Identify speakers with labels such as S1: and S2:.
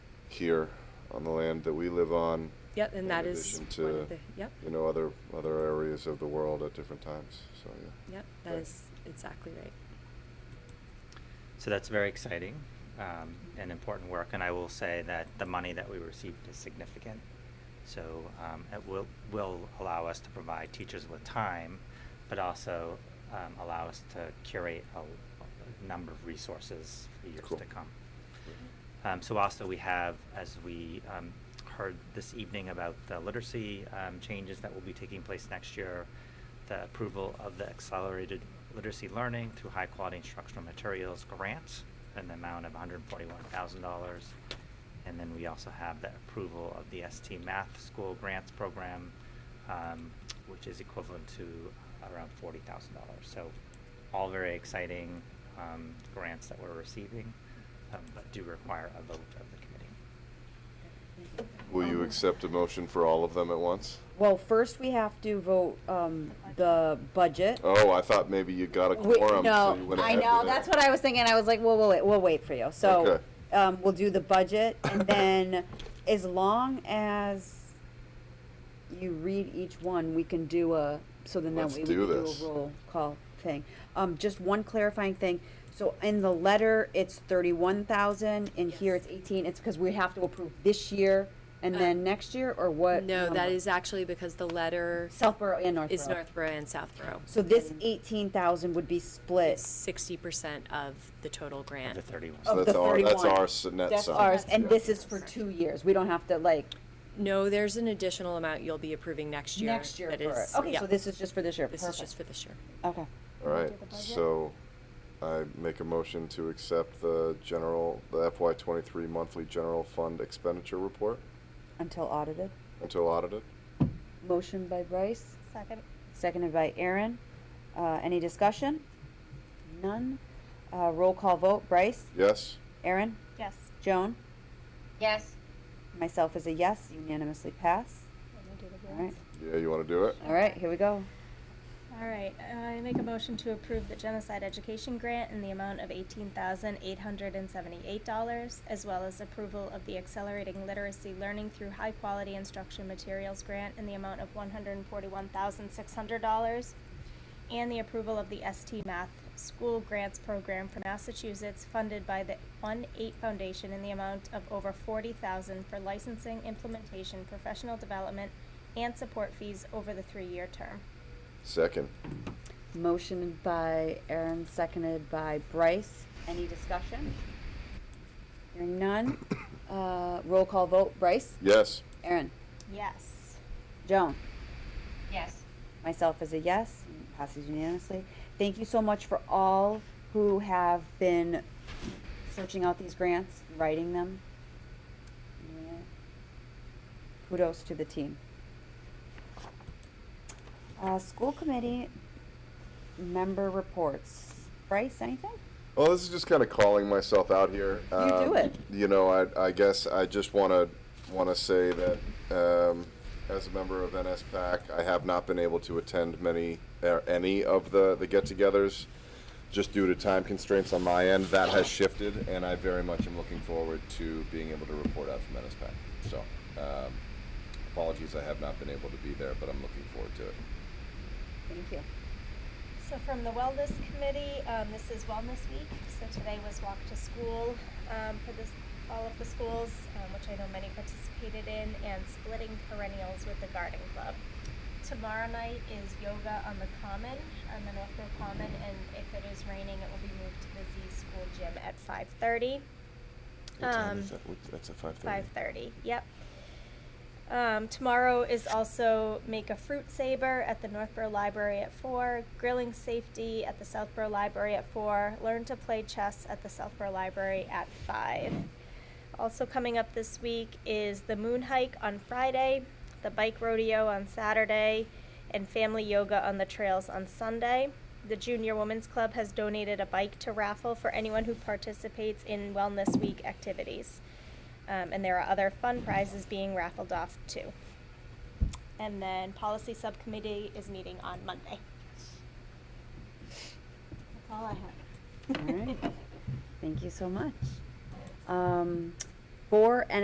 S1: here on the land that we live on,
S2: Yep, and that
S1: In
S2: is
S1: addition
S2: one
S1: to-
S2: of the, yep,
S1: you know, other, other areas of the world at different times, so, yeah.
S2: yep, that
S1: Right.
S2: is exactly right.
S3: So that's very exciting um, and important work. And I will say that the money that we received is significant. So um, it will, will allow us to provide teachers with time, but also um, allow us to curate a, a number of resources for years
S1: Cool.
S3: to come. Um, so also we have, as we um, heard this evening about the literacy um, changes that will be taking place next year, the approval of the accelerated literacy learning through high quality instructional materials grants in the amount of $141,000. And then we also have the approval of the ST Math School Grants Program, um, which is equivalent to around $40,000. So all very exciting um, grants that we're receiving, um, but do require a vote of the committee.
S2: um,
S1: Will you accept a motion for all of them at once?
S4: Well, first we have to vote, um, the budget.
S1: Oh, I thought maybe you got a
S4: We-
S1: quorum, so you went ahead with
S4: No, I know,
S1: it.
S4: that's what I was thinking, I was like, well, we'll, wait- we'll wait for you, so,
S1: Okay.
S4: um, we'll do the budget, and then, as long as you read each one, we can do a, so then that
S1: Let's
S4: way we
S1: do
S4: can do
S1: this.
S4: a roll call thing. Um, just one clarifying thing, so in the letter, it's thirty-one thousand, and here
S2: Yes. Uh,
S4: it's eighteen, it's because we have to approve this year, and then next year, or what?
S2: No, that
S4: number?
S2: is actually because the letter
S4: Southborough and Northborough.
S2: is Northborough and Southborough.
S4: So this eighteen thousand would be split.
S2: Sixty percent of the total grant.
S3: The 31.
S1: So
S4: of
S1: that's
S4: the
S1: our- that's
S4: 31.
S1: our s- net
S4: That's
S1: sum.
S4: ours, and
S1: Yeah.
S4: this is for two years, we don't have to like,
S2: No, there's an additional amount you'll be approving next year.
S4: next year
S2: that
S4: for it.
S2: is-
S4: Okay,
S2: yeah,
S4: so this is just for this year,
S2: This is just
S4: perfect.
S2: for this year.
S4: Okay.
S1: All right, so I make a motion to accept the general, the FY twenty-three monthly general fund expenditure report
S4: Until audited.
S1: until audited.
S4: Motion by Bryce,
S5: Second.
S4: seconded by Aaron. Uh, any discussion? None. Uh, roll call vote, Bryce,
S1: Yes?
S4: Aaron,
S5: Yes.
S4: Joan,
S5: Yes.
S4: myself is a yes, unanimously pass. All right,
S1: Yeah, you wanna do it?
S4: all right, here we go.
S5: All right, I make a motion to approve the genocide education grant in the amount of eighteen thousand eight hundred and seventy-eight dollars, as well as approval of the accelerating literacy learning through high-quality instruction materials grant in the amount of one hundred and forty-one thousand six hundred dollars, and the approval of the ST Math School Grants Program for Massachusetts funded by the One Eight Foundation in the amount of over forty thousand for licensing, implementation, professional development, and support fees over the three-year term.
S1: Second.
S4: Motion by Aaron, seconded by Bryce. Any discussion? Hearing none. Uh, roll call vote, Bryce,
S1: Yes?
S4: Aaron,
S5: Yes.
S4: Joan.
S5: Yes.
S4: Myself is a yes, and passes unanimously. Thank you so much for all who have been searching out these grants, writing them. Yeah. Kudos to the team. Uh, school committee member reports. Bryce, anything?
S1: Well, this is just kind of calling myself out here. You
S4: do it.
S1: You know, I, I guess I just want to want to say that um, as a member of NSPAC, I have not been able to attend many er, any of the the get-togethers just due to time constraints on my end. That has shifted, and I very much am looking forward to being able to report out from NSPAC. So, um, apologies, I have not been able to be there, but I'm looking forward to it.
S4: Thank you.
S5: So from the Wellness Committee, um, this is Wellness Week. So today was Walk to School um, for this, all of the schools, um, which I know many participated in, and splitting perennials with the garden club. Tomorrow night is yoga on the common, on the Northborough Common, and if it is raining, it will be moved to the Z School Gym at 5:30.
S1: What time
S5: Um,
S1: is that? What- That's at five thirty.
S5: Five thirty. Yep. Um, tomorrow is also make a fruit saber at the Northborough Library at four. Grilling safety at the Southborough Library at four. Learn to play chess at the Southborough Library at five. Also coming up this week is the moon hike on Friday, the bike rodeo on Saturday, and family yoga on the trails on Sunday. The Junior Women's Club has donated a bike to raffle for anyone who participates in Wellness Week activities. Um, and there are other fun prizes being raffled off too. And then policy subcommittee is meeting on Monday. That's all I have.
S4: All right. Thank you so much. Um, for